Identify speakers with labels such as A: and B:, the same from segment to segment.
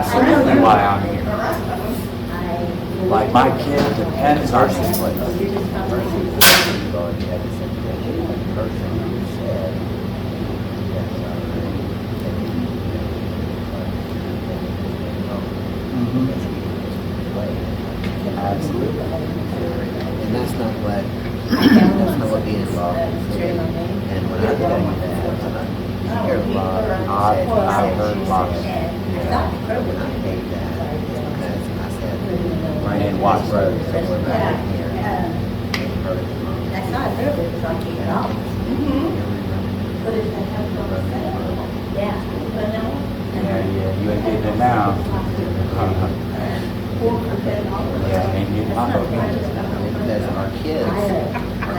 A: absolutely why I'm here. Like, my kid depends on this place.
B: Mm-hmm.
A: Mhm. Absolutely.
B: And that's not what, that's not what being involved is. And when I tell you that, I hear a lot of
A: I,
B: odd,
A: I heard lots.
B: When I hate that, it's because I said.
A: Right in Watts Road.
B: Somewhere back in here. it hurt them.
C: That's not a little bit funky at all. Yeah. But
A: Yeah,
C: no.
A: yeah, you ain't getting it now. Uh-huh. Yeah, ain't getting my vote.
B: Because our kids, our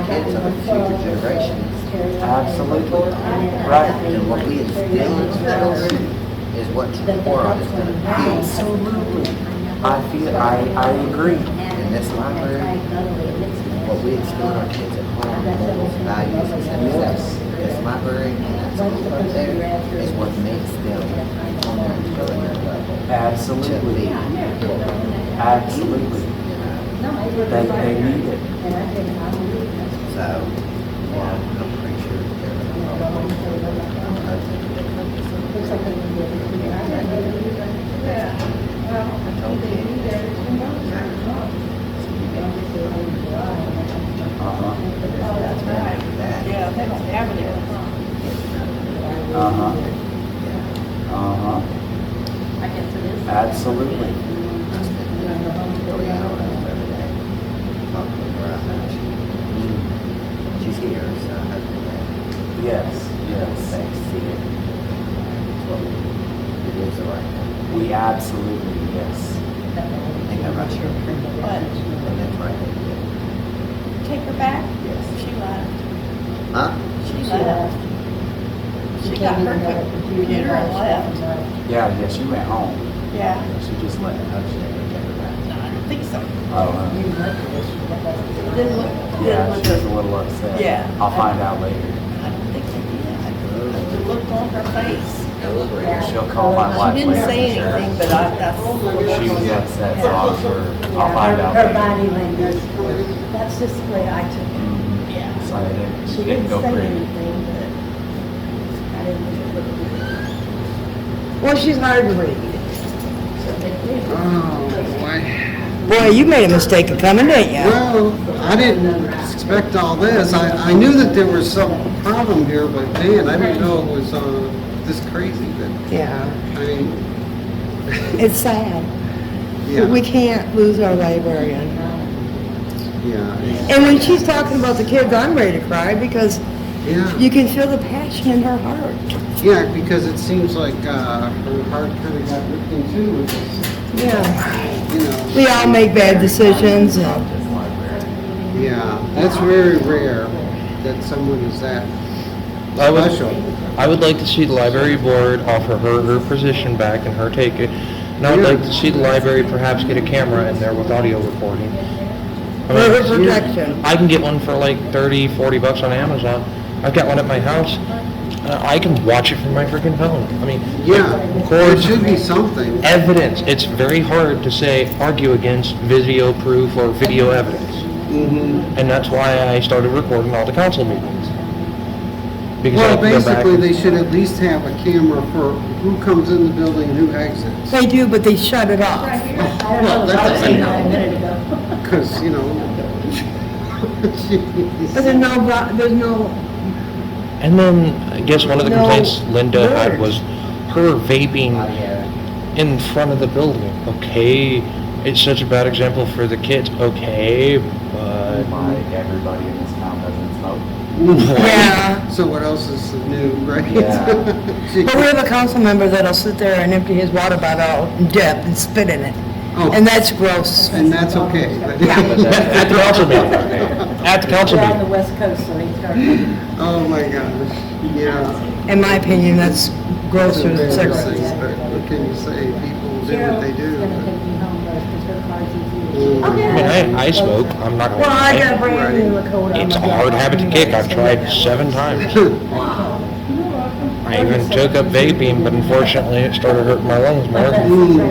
B: kids are the future generations.
A: Absolutely, right.
B: And what we instill into children is what tomorrow is gonna be.
A: Absolutely. I feel, I, I agree.
B: In this library, what we instill in our kids at home, morals, values, and
A: Yes.
B: stuff. This library and that school up there is what makes them on their intelligent level. To be,
A: Absolutely, absolutely.
B: you know,
A: They, they need it.
B: so, yeah, I'm pretty sure they're gonna.
A: Uh-huh,
B: That's bad, that,
D: Yeah, that's avenue.
A: uh-huh, uh-huh, absolutely.
B: I spend three hours every day talking to her about she- She's here, so hopefully that
A: Yes, yes.
B: they see it. It's what we- It is the right thing.
A: We absolutely, yes.
B: I think I'm not sure. And that's right.
D: Take her back?
B: Yes.
D: She left.
B: Huh?
D: She left. She got her computer and left.
A: Yeah, yeah, she went home.
D: Yeah.
A: She just
B: I
A: left.
B: understand we take her back.
D: No, I don't think so.
A: Oh,
D: Didn't look,
A: uh,
D: didn't
A: yeah,
D: look.
A: she's a little upset.
D: Yeah.
A: I'll find out later.
D: I don't think they did. The
B: Good.
D: look on her face.
B: Deliberate.
A: She'll call my wife
D: She
A: later.
D: didn't say anything, but I, I.
A: She was upset, so I'm sure, I'll find out
C: Her
A: later.
C: body language, that's just the way I took it.
A: Mhm.
D: Yeah.
A: So I didn't,
C: She
A: she
C: didn't
A: didn't go
C: say
A: crazy.
C: anything, but I didn't look at her. Well, she's hard to read.
E: Oh,
F: Boy, you made a mistake of coming, didn't you?
E: Well, I didn't expect all this. I, I knew that there was some problem here, but man, I didn't know it was, uh, this crazy, but,
F: Yeah,
E: I mean,
F: it's sad. But we
E: yeah,
F: can't lose our librarian.
E: yeah,
F: And when she's talking about the kids, I'm ready to cry because you
E: yeah.
F: can feel the passion in her heart.
E: Yeah, because it seems like, uh, her heart kinda got ripped in two, which is,
F: Yeah.
E: you know,
F: We all make bad decisions and,
E: yeah. That's very rare that someone is that
G: I would,
E: special.
G: I would like to see the library board offer her her position back and her take it. And I would like to see the library perhaps get a camera in there with audio recording.
F: for her
G: I mean,
F: protection.
G: I can get one for like 30, 40 bucks on Amazon. I've got one at my house. Uh, I can watch it from my freaking phone. I mean,
E: Yeah, there
G: Cords.
E: should be something.
G: evidence. It's very hard to say argue against video proof or video evidence.
E: Mm-hmm.
G: And that's why I started recording all the council meetings. Because I
E: Well,
G: can go back
E: basically,
G: and-
E: they should at least have a camera for who comes in the building and who exits.
F: They do, but they shut it off.
C: I don't know, I was saying that a minute ago.
E: Because, you know.
F: But there's no, vo- there's no,
G: And then, I guess one of the
F: No
G: complaints Linda had
F: words.
G: was her vaping in front of the building. Okay, it's such a bad example for the kids. Okay, but
A: Why everybody in this town doesn't smoke.
F: yeah.
E: So what else is new, right?
A: Yeah.
E: Gee.
F: But we have a council member that'll sit there and empty his water bottle out in depth and spit in it.
E: Oh,
F: And that's gross.
E: And that's okay. but-
G: at the council meeting, at the council
C: We're on the
G: meeting,
C: west coast, so we started.
E: Oh, my gosh, yeah.
F: In my opinion, that's
E: Those
F: grosser
E: are
F: than
E: bad
F: cigarettes.
E: things, But what can you say? People do what they do.
C: Carol's gonna take me home though, because her car's easy.
E: Mm.
C: to-
G: I mean, I, I smoke. I'm not gonna
F: Well, I got a
G: lie.
F: brand new Lakota.
G: It's a hard habit to kick. I've tried seven times.
E: but-
G: I I even took up vaping, but unfortunately it started hurting my lungs more.